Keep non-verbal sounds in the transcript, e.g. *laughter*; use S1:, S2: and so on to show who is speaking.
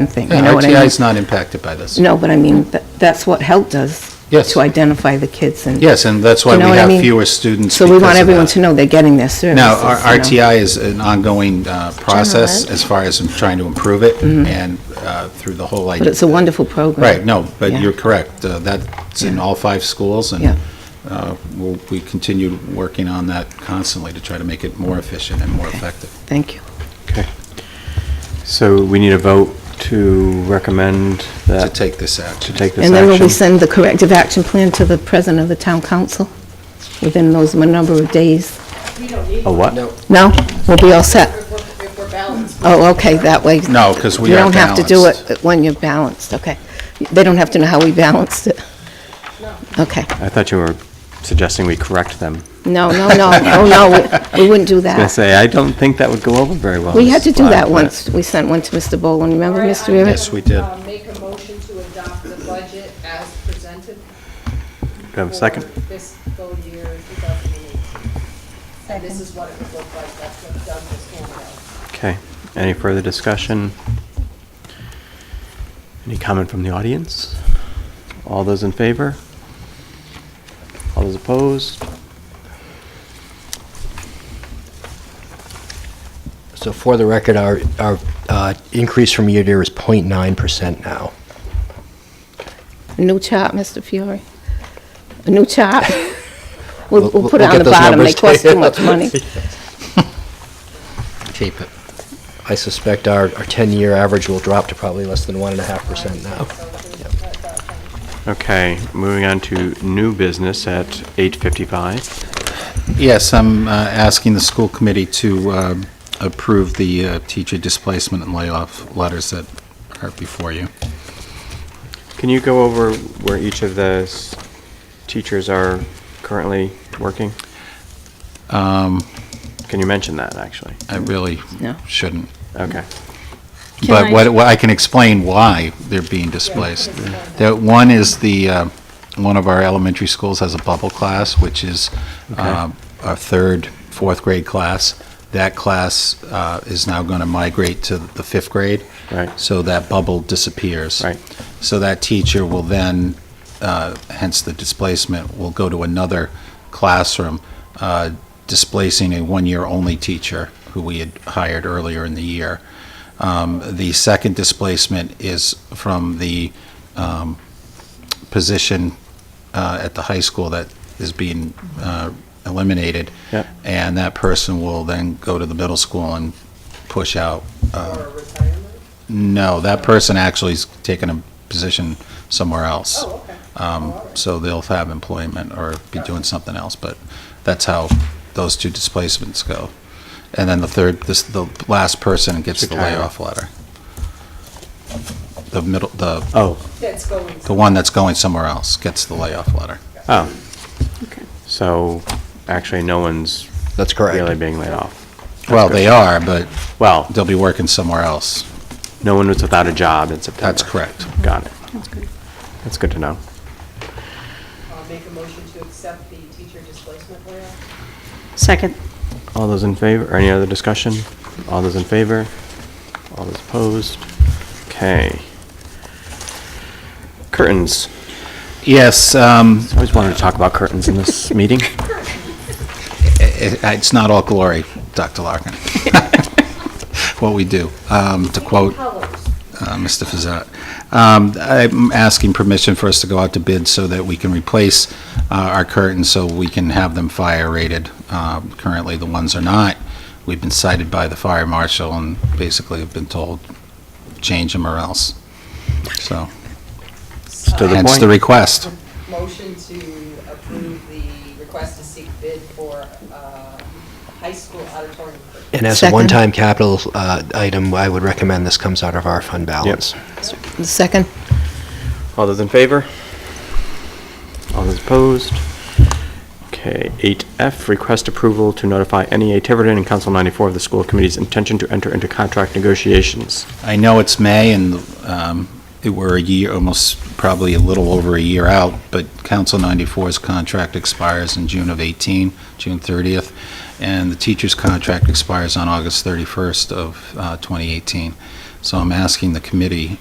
S1: and thing, you
S2: Yeah,
S1: know what I
S2: RTI
S1: mean? Mm.
S2: is not impacted by this.
S1: No, but I mean, tha- that's what help does.
S2: Yes.
S1: To identify the kids and.
S2: Yes, and that's why
S1: You
S2: we
S1: know what I
S2: have
S1: mean?
S2: fewer students
S1: So we
S2: because
S1: want
S2: of
S1: everyone
S2: that.
S1: to know they're getting their services.
S2: Now, our
S1: you know?
S2: RTI is an ongoing uh, process as far as trying to improve it and uh, through the whole idea.
S1: Mm-hmm. But it's a wonderful program.
S2: Right, no, but
S1: Yeah.
S2: you're correct. Uh, That's in all five schools,
S1: Yeah.
S2: and uh, we'll- we continue working on that constantly to try to make it more efficient and more effective.
S1: Thank you.
S3: Okay. So we need a vote to recommend
S2: To
S3: that,
S2: take this
S3: to
S2: action.
S3: take this
S1: And then will we
S3: action.
S1: send the corrective action plan to the president of the town council within those m- number of days?
S4: We don't need.
S3: A what?
S2: No,
S1: No? We'll be all set?
S4: If we're, if we're balanced.
S1: Oh, okay, that way.
S2: No, 'cause we
S1: You
S2: are
S1: don't have to do
S2: balanced.
S1: it when you're balanced, okay. They don't have to know how we balanced it? Okay.
S3: I thought you were suggesting we correct them. I was
S1: No, no, no, oh, no, we- we wouldn't do
S3: going to
S1: that.
S3: say, I don't think that would go over very well.
S1: We had
S3: Mrs.
S1: to do that
S3: Black, but-
S1: once. We sent one to Mr. Boland, remember,
S4: All right,
S1: Mr.
S4: I'm gonna,
S1: Rivett?
S2: Yes, we did.
S4: uh, Make a motion to adopt the budget as presented.
S3: Do I have a second?
S4: For fiscal year 2018. And this is what it would look like, that's what's done this whole year.
S3: Okay. Any further discussion? Any comment from the audience? All those in favor? All those opposed?
S5: So for the record, our, our uh, increase from year to year is 0.9% now.
S1: A new chart, Mr. Fiore? A new chart? We'll,
S5: We'll-
S1: we'll put it
S5: we'll
S1: on
S5: get
S1: the
S5: those
S1: bottom, they
S5: numbers
S1: cost
S5: *laughs*
S1: too
S5: taken.
S1: much money.
S5: Keep it. I suspect our, our 10-year average will drop to probably less than 1.5% now.
S3: Okay, moving on to new business at 8:55.
S2: Yes, I'm uh, asking the school committee to um, approve the uh, teacher displacement and layoff letters that are before you.
S3: Can you go over where each of the s- teachers are currently working?
S2: Um,
S3: Can you mention that, actually?
S2: I really
S1: No.
S2: shouldn't.
S3: Okay.
S2: But what, what I can explain why they're being displaced. That one is the, uh, one of our elementary schools has a bubble class, which is uh, our third, fourth grade class. That class uh, is now going to migrate to the fifth grade.
S3: Right.
S2: So that bubble disappears.
S3: Right.
S2: So that teacher will then, uh, hence the displacement, will go to another classroom, uh, displacing a one-year-only teacher who we had hired earlier in the year. Um, The second displacement is from the um, position uh, at the high school that is being uh, eliminated.
S3: Yep.
S2: And that person will then go to the middle school and push out uh,
S4: For a retirement?
S2: no, that person actually is taking a position somewhere else.
S4: Oh, okay.
S2: Um, So they'll have employment or be doing something else, but that's how those two displacements go. And then the third, this, the last person gets the
S3: Retire.
S2: layoff letter. The middle, the,
S3: Oh,
S4: That's going.
S2: the one that's going somewhere else gets the layoff letter.
S3: oh. So, actually, no one's
S5: That's correct.
S3: really being laid off.
S2: Well, they are, but
S3: Well,
S2: they'll be working somewhere else.
S3: no one was without a job in September.
S2: That's correct.
S3: Got it. That's good to know.
S4: I'll uh, make a motion to accept the teacher displacement plan.
S6: Second.
S3: All those in favor, or any other discussion? All those in favor? All those opposed? Okay. Curtains.
S2: Yes, um,
S3: I always wanted to talk about curtains in *laughs* this meeting.
S2: it- it's not all glory, Dr. *laughs* Larkin. What we do, um, to quote
S4: Colors.
S2: uh, Mr. Fazat. Um, I'm asking permission for us to go out to bid so that we can replace uh, our curtains so we can have them fire rated. Um, Currently, the ones are not. We've been cited by the fire marshal and basically have been told, change them or else. So,
S3: To the
S2: hence
S3: point.
S2: the request.
S4: Uh, Motion to approve the request to seek bid for uh, high school auditorium. curtain.
S5: And as a
S1: Second.
S5: one-time capital uh, item, I would recommend this comes out of our fund balance.
S1: The Second?
S3: All those in favor? All those opposed? Okay, 8F, request approval to notify NEA Tiverton and Council 94 of the school committee's intention to enter into contract negotiations.
S2: I know it's May and um, it we're a year, almost probably a little over a year out, but Council 94's contract expires in June of 18, June 30th, and the teacher's contract expires on August 31st of uh, 2018. So I'm asking the committee